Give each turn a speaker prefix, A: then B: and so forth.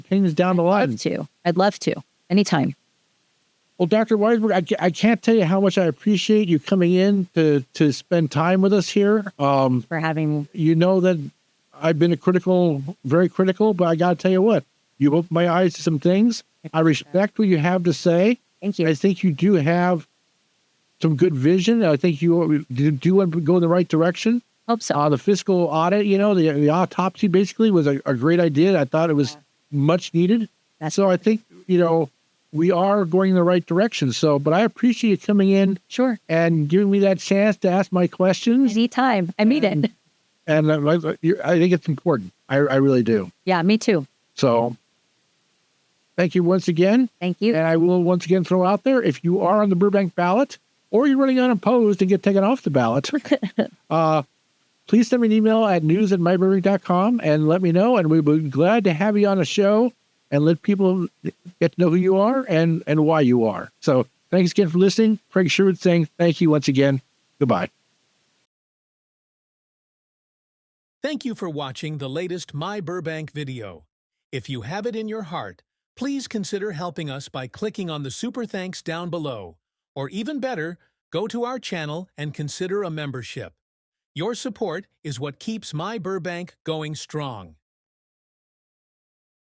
A: things down the
B: I'd
A: line.
B: love to. I'd love to. Anytime.
A: Well, Dr. Weisberg, I, ca- I can't tell you how much I appreciate you coming in to to spend time with us here. Um,
B: For having
A: you know that I've been a critical, very critical, but I got to tell you what, you opened my eyes to some things. I respect what you have to say.
B: thank
A: I
B: you.
A: think you do have some good vision. I think you you do go in the right direction.
B: Hope so.
A: Uh, the fiscal audit, you know, the, the autopsy basically was a, a great idea. I thought it was much needed.
B: That's
A: so I think, you know, we are going in the right direction. So, but I appreciate you coming in
B: Sure.
A: and giving me that chance to ask my questions.
B: Anytime. I mean it.
A: And I, I- you- I think it's important. I, I really do.
B: Yeah, me too.
A: So thank you once again.
B: Thank you.
A: And I will once again throw out there if you are on the Burbank ballot or you're running unopposed and get taken off the ballot, uh, please send me an email at news at myburbank.com and let me know. And we'll be glad to have you on a show and let people get to know who you are and, and why you are. So thanks again for listening. Craig Sherwood saying thank you once again. Goodbye.
C: Thank you for watching the latest My Burbank video. If you have it in your heart, please consider helping us by clicking on the super thanks down below. Or even better, go to our channel and consider a membership. Your support is what keeps My Burbank going strong.